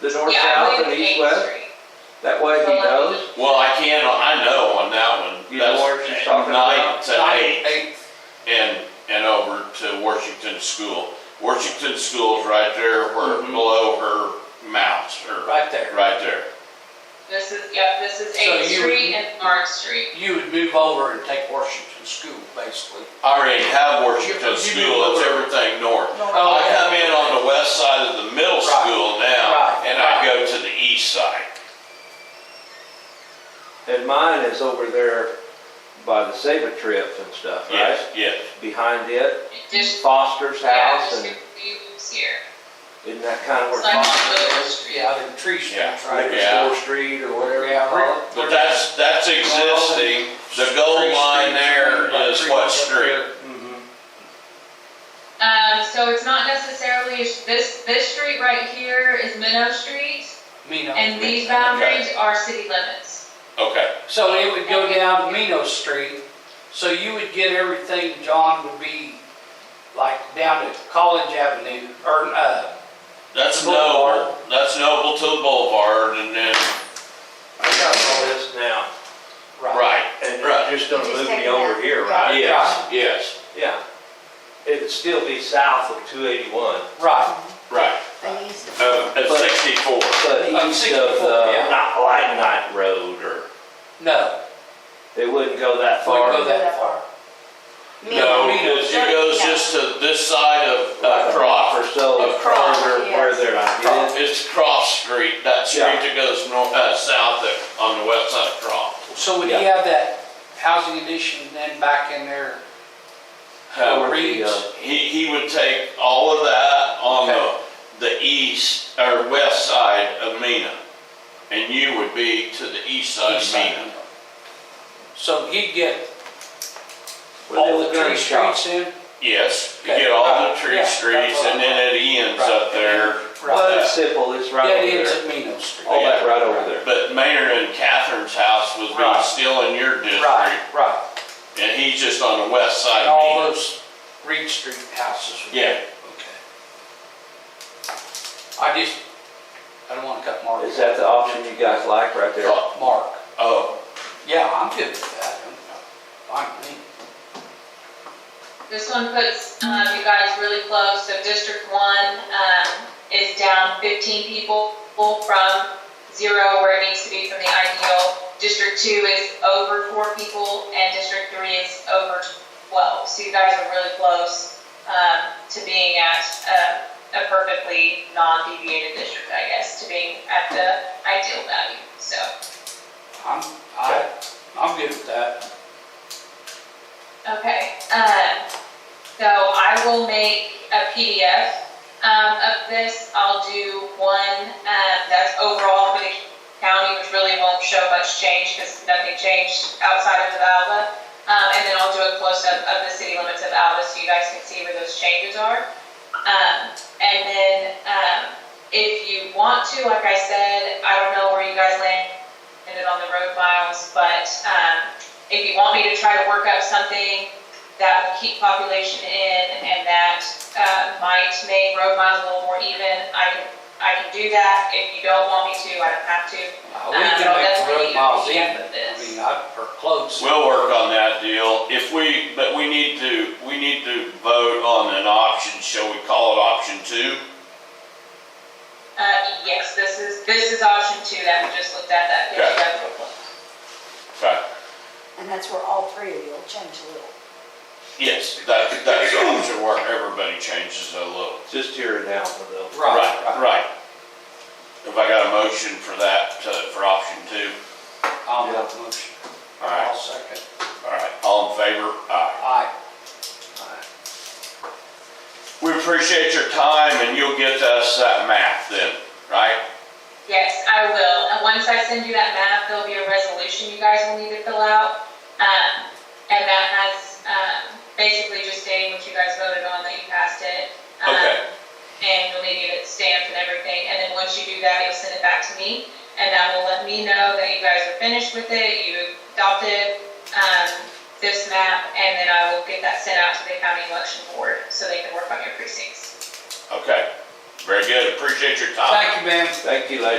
The north, Yeah, I south, and believe it's east, Main west? Street. That way he So, like, knows. Well, I can, I know on that one. You know that's where she's talking Nine about? to eight Eight. and, and over to Washington School. Washington School's right there where, below her mount, or, right there. right there. This is, yep, this is So Eighth you- Street and Mark Street. You would move over and take Washington School, basically. I already have Washington You- you School, do. it's everything north. Oh, I yeah. come in on the west side of the middle Right. school now, Right. and I go to the east side. And mine is over there by the Saber trips and stuff, right? Yes, yes. Behind it, Just, Foster's yeah, house, just and moves here. isn't that kind of where It's like on Foster Willard is? Street. Yeah, the tree stands Yeah. right Maybe there. Yeah. Store Street or whatever you Yeah, call it. right. But that's, that's existing, the gold Tree line stands there right by is tree what up street? there. Mhm. Um, so it's not necessarily, this, this street right here is Minnow Street, Mino. and these boundaries are city limits. Okay, So it would go down Mino Street, so you would get everything, John, would be like down to College Avenue, or, uh, that's Boulevard. Noble, that's Noble to the Boulevard and then, I got all this now, right. right, and Right. you're just gonna You just move take me it over out. here, right? yes, yes, Yeah. It'd still be south of two eighty-one, Right, right. They used to- Uh, at But- sixty-four, but Of east 64, of the, yeah. not Light Night Road, or, no, it wouldn't go that wouldn't far. go that far. no, Mino. it goes just to this side of, Or uh, Crawford. so, Of Cross, further, where yes. they're, I Cross. It's Cross Street, that street Yeah. that goes north, uh, south of, on the west side of Cross. So would you have that housing addition then back in there? Over Uh, the, Reeds? uh, He, he would take all of that on Okay. the, the east, or west side of Mina. And you would be to the east uh, side east of side. Mina. So he'd get where they all were the gonna tree shop. streets in? Yes, you Okay. get all the Right. tree Yeah, streets that's what and I then it ends up Right. there. Well, Right. it's simple, it's right That over ends there. at Mino Street. All that right over there. But Mayor and Catherine's house was Right. being still in your Right, district right. and he's just on the west side And of all Mina. those Reed Street houses. would- Yeah, Okay. I just, I don't want to cut Mark. Is that the option you guys like right there? Mark. oh, Yeah, I'm good with that. Fine, with me. This one puts, um, you guys really close, so District One, um, is down fifteen people from zero where it needs to be from the ideal. District Two is over four people, and District Three is over twelve, so you guys are really close, um, to being at, uh, a perfectly non-deviated district, I guess, to being at the ideal value, so. I'm, I, I'm good with that. Okay, um, so I will make a PDF, um, of this. I'll do one, um, that's overall for the county, which really won't show much change because nothing changed outside of the Alva. Um, and then I'll do a close-up of the city limits of Alva so you guys can see where those changes are. Um, and then, um, if you want to, like I said, I don't know where you guys landed on the road miles, but, um, if you want me to try to work up something that will keep population in and that uh, might make road miles a little more even, I can, I can do that. If you don't want me to, I don't have to. Uh, We Um, can make that's the what road you- miles you in, put but I this. mean, I, or close. we'll work on that deal. If we, but we need to, we need to vote on an option, shall we call it option two? Uh, yes, this is, this is option two that we just looked at, that gives you guys a little- Okay. And that's where all three of you will change a little. Yes, that, that's the option where everybody changes a little. Just here and now, though. Right, right. Right. If I got a motion for that, uh, for option two, I'll make the motion. All right. I'll second. all right, all in favor? Aye. Aye. We appreciate your time and you'll get us that map then, right? Yes, I will. And once I send you that map, there'll be a resolution you guys will need to fill out. Um, and that has, um, basically just stating what you guys voted on, that you passed it. Um, Okay. And you'll need to get it stamped and everything. And then once you do that, you'll send it back to me. And that will let me know that you guys are finished with it, you adopted, um, this map, and then I will get that sent out to the county election board so they can work on your precincts. Okay. Very good, appreciate your time. Thank you, ma'am. Thank you, ladies.